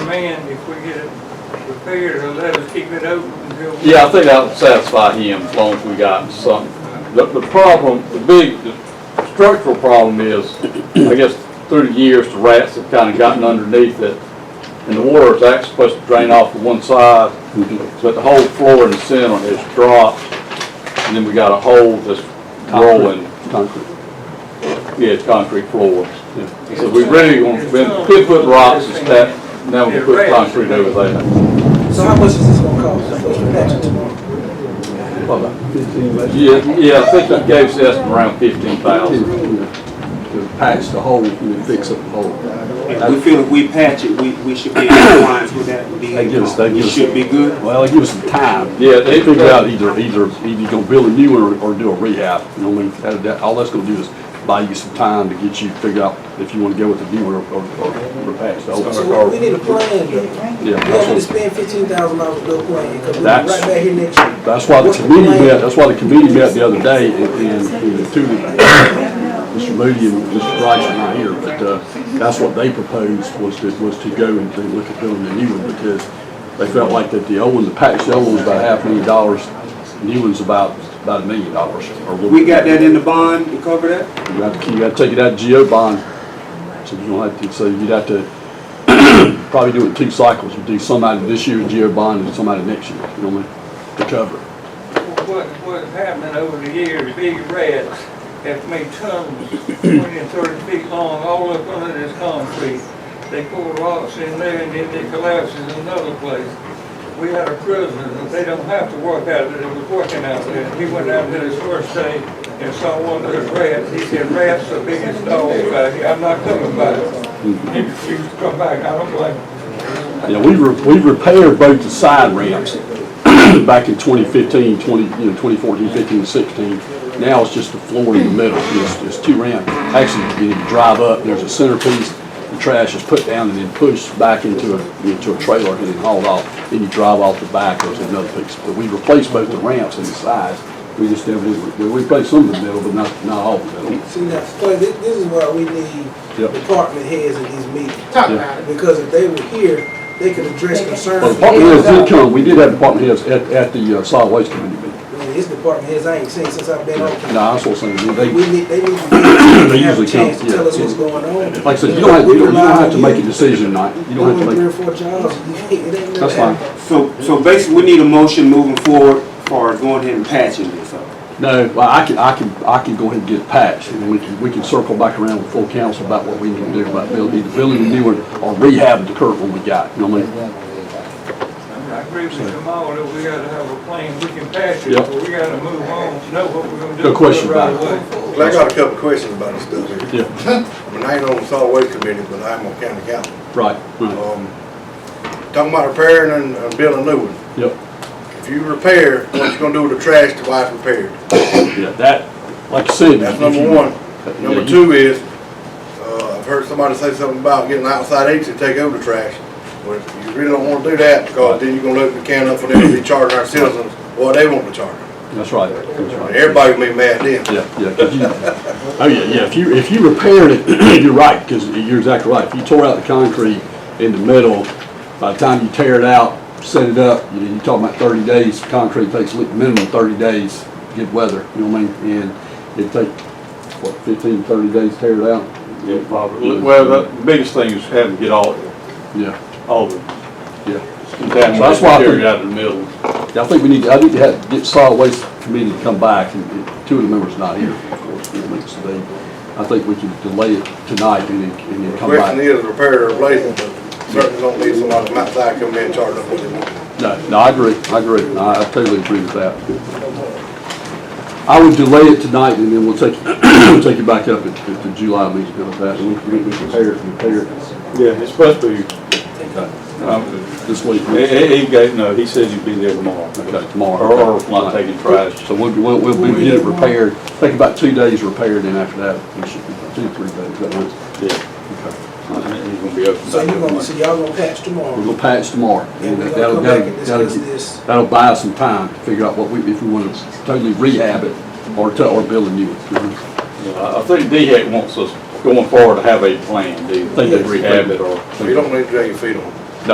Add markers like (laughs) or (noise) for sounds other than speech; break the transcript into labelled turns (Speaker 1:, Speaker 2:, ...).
Speaker 1: demand, if we get it repaired, it'll let us keep it open until. we-
Speaker 2: Yeah, I think that would satisfy him as long as we got something. The, the problem, the big, the structural problem is, I guess, through the years, the rats have kind of gotten underneath it. And the water is actually supposed to drain off to one side, but the whole floor in the center has dropped. And then we got a hole that's rolling.
Speaker 3: Concrete.
Speaker 2: Yeah, it's concrete floors. So we really want, we could put rocks and stuff, now we put concrete over there.
Speaker 4: So how much is this gonna cost? What's the budget?
Speaker 3: Fifteen less.
Speaker 2: Yeah, yeah, I think that gave us an estimate around fifteen thousand.
Speaker 3: To patch the hole and fix up the hole.
Speaker 5: If we feel if we patch it, we, we should be in compliance with that. Be-
Speaker 3: They give us- they give
Speaker 5: We
Speaker 3: us-
Speaker 5: should be good.
Speaker 3: Well, give us some time.
Speaker 2: Yeah, they
Speaker 3: They figure out either, either, either you gonna build a new one or, or do a rehab, you know, what I mean, that, that, all that's gonna do is buy you some time to get you, figure out if you wanna go with the new one or, or, or patch the old.
Speaker 4: So we, we need a plan though. We don't need to
Speaker 3: Yeah, that's what,
Speaker 4: spend fifteen thousand dollars to a plan, cause we'll be right
Speaker 3: That's-
Speaker 4: back here next year.
Speaker 3: that's why the committee met, that's why the committee met the other day, and, and and the two, Mr. Moody and Mr. Price are not here, but, uh, that's what they proposed, was to, was to go and to look at building a new one, because they felt like that the old one, the patch, the old one's about half a million dollars, new one's about, about a million dollars, or a little.
Speaker 5: We got that in the bond to cover that?
Speaker 3: You have to, you gotta take it out of GO bond, so you don't have to, so you'd have to (clears throat) probably do it in two cycles, you do some out of this year's GO bond and some out of next year, you know what I mean, to cover it.
Speaker 1: What, what's happening over the years, big rats have made tunnels twenty and thirty feet long, all up under this concrete. They pour rocks in there and then it collapses in another place. We had a prisoner, that they don't have to work out there, that was working out there. He went out there his first day and saw one of those rats. He said, rats are biggest dogs out here, I'm not coming back. He refused to come back, I don't blame him.
Speaker 3: Yeah, we re, we repaired both the side ramps (clears throat) back in 2015, 20, you know, 2014, 15, 16. Now it's just the floor in the middle, it's, it's two ramps. Actually, you drive up, there's a centerpiece, the trash is put down and then pushed back into a, into a trailer and then hauled off. Then you drive off the back, there's another piece. But we replaced both the ramps and the sides. We just never did, we we replaced some of the middle, but not, not all the middle.
Speaker 4: See now, so this, this is why we need
Speaker 3: Yep.
Speaker 4: department heads in these meetings.
Speaker 6: Talk
Speaker 3: Yeah.
Speaker 6: about it.
Speaker 4: Because if they were here, they could address
Speaker 3: Well,
Speaker 4: concerns.
Speaker 3: department heads did come, we did have department heads at, at the uh, solid waste committee meeting.
Speaker 4: Man, It's department heads I ain't seen since I've been on.
Speaker 3: No, I was also saying, they,
Speaker 4: We need, they need to
Speaker 3: (clears throat) They
Speaker 4: have a
Speaker 3: usually
Speaker 4: chance to
Speaker 3: can't, yeah.
Speaker 4: tell us what's going on.
Speaker 3: Like I said, you don't have, you don't, you don't have to make a decision tonight. You don't have to
Speaker 4: Three or
Speaker 3: make,
Speaker 4: four jobs, (laughs) it ain't never
Speaker 3: that's fine.
Speaker 4: happened.
Speaker 5: So, so basically, we need a motion moving forward for going ahead and patching this up.
Speaker 3: No, well, I can, I can, I can go ahead and get it patched, and then we can, we can circle back around with full council about what we need to do about building, either building a new one or rehab the current one we got, you know what I mean?
Speaker 1: I agree with Jamal that we gotta have a plan, we can pass it,
Speaker 3: Yep.
Speaker 1: but we gotta move on, know what we're gonna do.
Speaker 3: No question
Speaker 1: right
Speaker 3: about it.
Speaker 1: away.
Speaker 7: Well, I got a couple questions about this stuff here.
Speaker 3: Yeah,
Speaker 7: I mean, I ain't on the solid waste committee, but I'm on county council.
Speaker 3: right,
Speaker 2: Oh,
Speaker 3: right,
Speaker 7: Um, Talking about repairing and- and building a new one.
Speaker 3: yep,
Speaker 7: If you repair, what you gonna do with the trash till it's repaired?
Speaker 3: yeah, that, like I said.
Speaker 7: That's
Speaker 3: if you-
Speaker 7: number one.
Speaker 3: Yeah,
Speaker 7: Number
Speaker 3: you-
Speaker 7: two is, uh, I've heard somebody say something about getting outside agents to take over the trash. Well, you really don't wanna do that, because then you're gonna open the can up for them to be charging our citizens what they want to charge.
Speaker 3: That's right, that's right.
Speaker 7: Everybody gonna be mad then.
Speaker 3: Yeah, yeah, 'cause you, (laughs) oh yeah, yeah, if you, if you repaired it, (clears throat) you're right, because you're exactly right. If you tore out the concrete in the middle, by the time you tear it out, set it up, you know, you're talking about thirty days, concrete takes li- minimum thirty days, good weather, you know what I mean? And it'd take, what, 15, 30 days to tear it out?
Speaker 2: Yeah, probably. Well, the biggest thing is having to get all,
Speaker 3: Yeah,
Speaker 2: all the
Speaker 3: yeah.
Speaker 2: contaminants
Speaker 3: why I
Speaker 2: carried
Speaker 3: think-
Speaker 2: out of the middle.
Speaker 3: Yeah, I think we need, to- I need to have, get solid waste committee to come back, and and two of the members not here, of course, you know, so they, I think we can delay it tonight and then, and then
Speaker 7: The
Speaker 3: come back.
Speaker 7: question is repair or replace, but certainly don't need somebody from outside coming in and charging them what they want.
Speaker 3: No, no, I agree, I agree, No, I totally agree with that. I would delay it tonight, and then we'll take, (clears throat) we'll take it back up at, at the July meeting, if that, and we can we can prepare, it, prepare it
Speaker 8: Yeah, it's supposed to be, um,
Speaker 3: this week,
Speaker 8: he, he he gave, no, he says he'd be there tomorrow.
Speaker 3: okay,
Speaker 8: Or,
Speaker 3: tomorrow.
Speaker 8: or not taking trash.
Speaker 3: So we'll, be- we'll, we'll be- get it repaired, take about two days repaired, and after that, we should, two, three days, that works.
Speaker 8: Yeah,
Speaker 3: Okay.
Speaker 8: he's gonna be open.
Speaker 4: So you gonna, so y'all gonna patch
Speaker 3: We're
Speaker 4: tomorrow,
Speaker 3: gonna patch tomorrow,
Speaker 4: and
Speaker 3: and
Speaker 4: we
Speaker 3: that'll,
Speaker 4: gonna come back
Speaker 3: that'll,
Speaker 4: and
Speaker 3: that'll
Speaker 4: discuss
Speaker 3: get-
Speaker 4: this.
Speaker 3: That'll buy us some time to figure out what we, if we want to totally rehab it or to, or build a new one.
Speaker 2: Yeah, I I think DHEC wants us going forward to have a plan. Do you think they
Speaker 4: Yes.
Speaker 2: rehab it or?
Speaker 7: You don't need to drag your feet on.